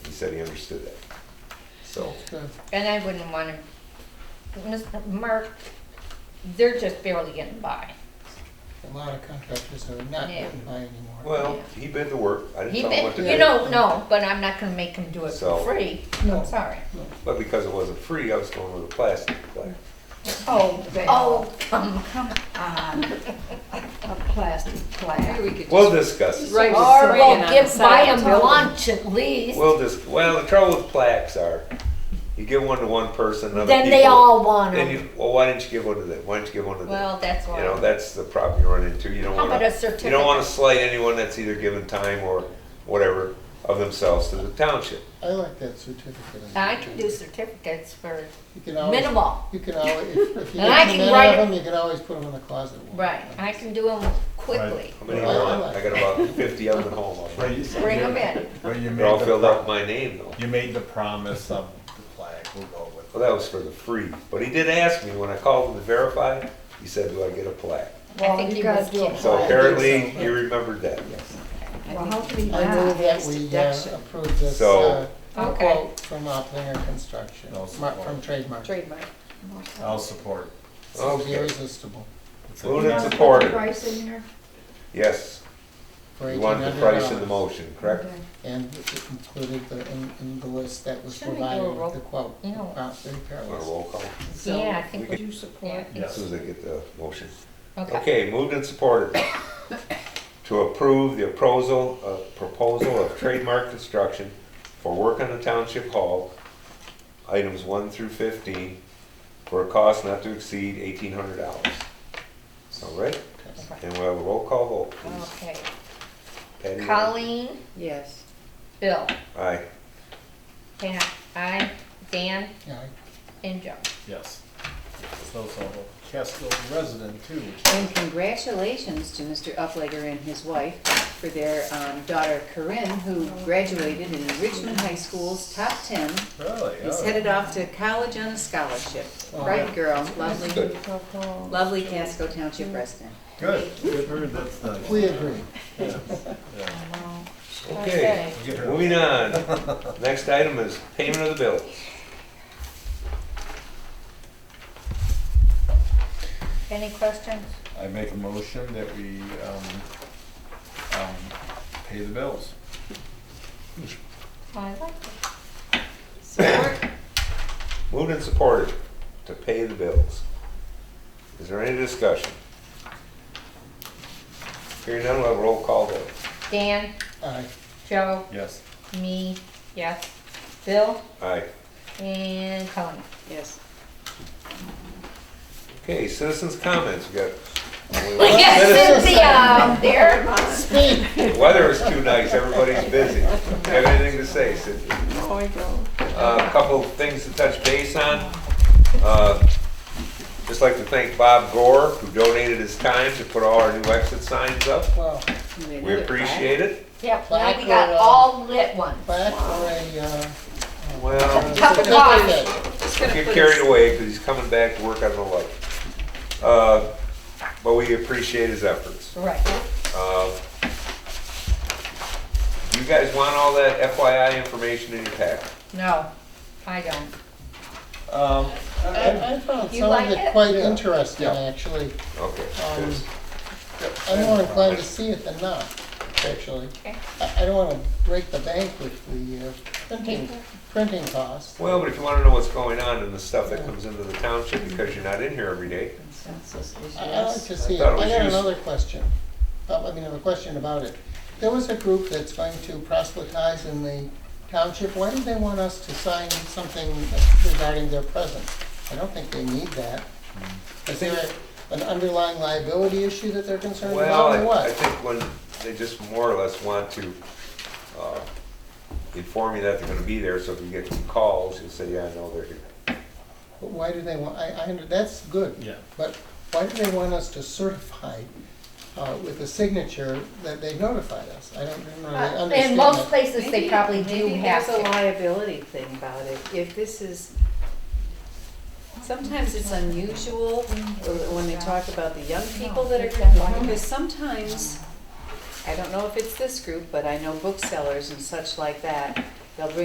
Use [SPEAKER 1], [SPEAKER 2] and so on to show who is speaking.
[SPEAKER 1] said he understood that. So,
[SPEAKER 2] And I wouldn't want to, Mark, they're just barely getting by.
[SPEAKER 3] A lot of contractors are not
[SPEAKER 2] Yeah.
[SPEAKER 3] getting by anymore.
[SPEAKER 1] well, he bid the work, I didn't
[SPEAKER 2] He,
[SPEAKER 1] tell him what
[SPEAKER 2] bet-
[SPEAKER 1] to
[SPEAKER 2] you
[SPEAKER 1] do.
[SPEAKER 2] know, no, but I'm not gonna make him do it for
[SPEAKER 1] So-
[SPEAKER 2] free. No, sorry.
[SPEAKER 1] But because it wasn't free, I was going with a plastic plaque.
[SPEAKER 4] Oh, Val,
[SPEAKER 2] Oh, come, come
[SPEAKER 4] um, a plastic plaque.
[SPEAKER 5] Maybe we could
[SPEAKER 1] We'll
[SPEAKER 5] just
[SPEAKER 1] discuss it.
[SPEAKER 5] write a
[SPEAKER 2] Or
[SPEAKER 5] screen
[SPEAKER 2] we'll
[SPEAKER 5] on the
[SPEAKER 2] give,
[SPEAKER 5] side
[SPEAKER 2] buy
[SPEAKER 5] of
[SPEAKER 2] him
[SPEAKER 5] the building.
[SPEAKER 2] lunch at least,
[SPEAKER 1] We'll just, well, the trouble with plaques are, you give one to one person, other people.
[SPEAKER 2] then they all want
[SPEAKER 1] Then
[SPEAKER 2] them.
[SPEAKER 1] you, well, why didn't you give one to them? Why didn't you give one to them?
[SPEAKER 2] Well, that's
[SPEAKER 1] You know,
[SPEAKER 2] why.
[SPEAKER 1] that's the problem you run into. You don't
[SPEAKER 2] How
[SPEAKER 1] want
[SPEAKER 2] about a
[SPEAKER 1] to, you don't want
[SPEAKER 2] certificate?
[SPEAKER 1] to slight anyone that's either given time or whatever of themselves to the township.
[SPEAKER 3] I like that certificate.
[SPEAKER 2] I can do certificates for,
[SPEAKER 3] You can always-
[SPEAKER 2] minimal.
[SPEAKER 3] You can always, if if you
[SPEAKER 2] And I
[SPEAKER 3] get too
[SPEAKER 2] can
[SPEAKER 3] many
[SPEAKER 2] write
[SPEAKER 3] of
[SPEAKER 2] it-
[SPEAKER 3] them, you can always put them in the closet.
[SPEAKER 2] right, I can do them quickly.
[SPEAKER 1] How many do
[SPEAKER 3] Well,
[SPEAKER 1] you
[SPEAKER 3] I
[SPEAKER 1] want?
[SPEAKER 3] like-
[SPEAKER 1] I got about fifty of them at home.
[SPEAKER 6] But you-
[SPEAKER 2] Bring 'em in.
[SPEAKER 6] But you
[SPEAKER 1] They're all
[SPEAKER 6] made the,
[SPEAKER 1] filled out
[SPEAKER 6] pro-
[SPEAKER 1] my name though.
[SPEAKER 6] you made the promise of the plaque, we'll go with it.
[SPEAKER 1] Well, that was for the free, but he did ask me when I called him to verify, he said, do I get a plaque?
[SPEAKER 2] I
[SPEAKER 4] Well,
[SPEAKER 2] think
[SPEAKER 4] you
[SPEAKER 2] he
[SPEAKER 4] gotta
[SPEAKER 2] was
[SPEAKER 4] do a
[SPEAKER 2] kidding.
[SPEAKER 4] plaque.
[SPEAKER 1] So apparently,
[SPEAKER 3] so.
[SPEAKER 1] you remembered that.
[SPEAKER 4] Well, how can we
[SPEAKER 3] I
[SPEAKER 4] not?
[SPEAKER 3] move that
[SPEAKER 4] It's
[SPEAKER 3] we uh,
[SPEAKER 4] deduction.
[SPEAKER 3] approve this uh,
[SPEAKER 1] So-
[SPEAKER 2] Okay.
[SPEAKER 3] quote from Oplinger Construction,
[SPEAKER 6] No
[SPEAKER 3] mar- from
[SPEAKER 6] support.
[SPEAKER 3] trademark.
[SPEAKER 2] Trademark.
[SPEAKER 6] I'll support.
[SPEAKER 3] It's
[SPEAKER 1] Okay.
[SPEAKER 3] irresistible
[SPEAKER 6] It's
[SPEAKER 1] Moved
[SPEAKER 6] a-
[SPEAKER 1] and supported.
[SPEAKER 4] Price in there?
[SPEAKER 1] Yes,
[SPEAKER 3] for
[SPEAKER 1] you
[SPEAKER 3] eighteen
[SPEAKER 1] wanted
[SPEAKER 3] hundred
[SPEAKER 1] the price in the
[SPEAKER 3] dollars.
[SPEAKER 1] motion, correct?
[SPEAKER 4] Okay.
[SPEAKER 3] And it included the, in, in the list that was
[SPEAKER 2] Should we do a
[SPEAKER 3] provided
[SPEAKER 2] roll-
[SPEAKER 3] with the quote.
[SPEAKER 2] No.
[SPEAKER 3] about the repair
[SPEAKER 1] Want a
[SPEAKER 3] list.
[SPEAKER 1] roll call?
[SPEAKER 4] So,
[SPEAKER 2] Yeah, I think,
[SPEAKER 4] would
[SPEAKER 2] we-
[SPEAKER 4] you support?
[SPEAKER 2] Yeah.
[SPEAKER 1] As
[SPEAKER 6] Yes,
[SPEAKER 1] soon as I get the motion.
[SPEAKER 2] okay.
[SPEAKER 1] Okay, moved and supported to approve the proposal, uh, proposal of trademark construction for work on the township hall, items one through fifteen, for a cost not to exceed eighteen hundred dollars. All right, and we'll have a roll call vote, please.
[SPEAKER 2] Okay.
[SPEAKER 1] Patty?
[SPEAKER 2] Colleen,
[SPEAKER 4] Yes.
[SPEAKER 2] Bill,
[SPEAKER 1] Aye.
[SPEAKER 2] Hannah, I, Dan,
[SPEAKER 3] Yeah, I-
[SPEAKER 2] and Joe.
[SPEAKER 6] yes. So, so, Casco resident too, which
[SPEAKER 7] And congratulations to Mr. Uplager and his wife for their um, daughter Corinne, who graduated in Richmond High School's top 10.
[SPEAKER 6] really,
[SPEAKER 7] Is
[SPEAKER 6] oh.
[SPEAKER 7] headed off to college on a scholarship.
[SPEAKER 3] Oh,
[SPEAKER 7] Bright
[SPEAKER 3] yeah.
[SPEAKER 7] girl, lovely,
[SPEAKER 1] Good.
[SPEAKER 7] lovely Casco Township resident.
[SPEAKER 6] good, good, for her, that's nice.
[SPEAKER 3] We agree.
[SPEAKER 6] Yeah, yeah.
[SPEAKER 1] Okay,
[SPEAKER 6] Get her-
[SPEAKER 1] moving on. Next item is payment of the bills.
[SPEAKER 2] Any questions?
[SPEAKER 6] I make a motion that we, um, um, pay the bills.
[SPEAKER 2] Oh, I like it.
[SPEAKER 7] Support?
[SPEAKER 1] Moved and supported to pay the bills. Is there any discussion? Hearing none, we'll have a roll call vote.
[SPEAKER 2] Dan,
[SPEAKER 3] Aye.
[SPEAKER 2] Joe,
[SPEAKER 6] Yes,
[SPEAKER 2] me, yes, Bill,
[SPEAKER 1] Aye.
[SPEAKER 2] and Colleen.
[SPEAKER 7] Yes.
[SPEAKER 1] Okay, citizens' comments, we got.
[SPEAKER 2] We got Cynthia out uh, there.
[SPEAKER 1] The Weather is too nice, everybody's busy. Do you Have anything to say, Cynthia? Uh, A couple of things to touch base on. Uh, Just like to thank Bob Gore, who donated his time to put all our new exit signs up.
[SPEAKER 3] Well,
[SPEAKER 1] We appreciate it.
[SPEAKER 2] Yep, now we got all lit ones.
[SPEAKER 3] back for a, uh,
[SPEAKER 1] Well.
[SPEAKER 2] Cup of coffee.
[SPEAKER 5] Just gonna
[SPEAKER 1] get
[SPEAKER 5] put
[SPEAKER 1] carried away because he's coming back to work on the light. Uh, But we appreciate his efforts.
[SPEAKER 2] Right.
[SPEAKER 1] Uh, You guys want all that FYI information in your pack?
[SPEAKER 2] No, I don't.
[SPEAKER 6] um,
[SPEAKER 2] Uh,
[SPEAKER 6] I-
[SPEAKER 3] I, I found
[SPEAKER 2] You
[SPEAKER 3] some
[SPEAKER 2] like
[SPEAKER 3] of it
[SPEAKER 2] it?
[SPEAKER 3] quite interesting,
[SPEAKER 6] Yeah.
[SPEAKER 3] actually.
[SPEAKER 1] Okay.
[SPEAKER 3] Um,
[SPEAKER 1] good.
[SPEAKER 3] I'm more inclined to see it than not, actually.
[SPEAKER 2] Okay.
[SPEAKER 3] I, I don't wanna break the bank with the, uh, printing, printing costs.
[SPEAKER 1] Well, but if you want to know what's going on and the stuff that comes into the township because you're not in here every day,
[SPEAKER 4] Consensus is
[SPEAKER 3] I- I'd like
[SPEAKER 4] yes.
[SPEAKER 3] to see it.
[SPEAKER 1] thought it was
[SPEAKER 3] I got
[SPEAKER 1] used-
[SPEAKER 3] another question. Uh, I mean, a question about it. There was a group that's going to proselytize in the township. Why did they want us to sign something regarding their presence? I don't think they need that. Is there a- an underlying liability issue that they're concerned
[SPEAKER 1] well,
[SPEAKER 3] about or
[SPEAKER 1] I- I
[SPEAKER 3] Uh, what?
[SPEAKER 1] think when, they just more or less want to uh, inform you that they're going to be there, so if you get some calls, you'll say, yeah, I know they're here.
[SPEAKER 3] But Why do they want, I, I, under- that's good.
[SPEAKER 6] Yeah.
[SPEAKER 3] But why do they want us to certify uh, with a signature that they notified us? I don't really understand that.
[SPEAKER 2] In Uh, most places, they
[SPEAKER 7] Maybe-
[SPEAKER 2] probably do
[SPEAKER 7] maybe
[SPEAKER 2] have
[SPEAKER 7] There's a
[SPEAKER 2] to.
[SPEAKER 7] liability thing about it, if this is, sometimes it's unusual when they talk about the young people that are going to because sometimes, I don't know if it's this group, but I know booksellers and such like that, they'll bring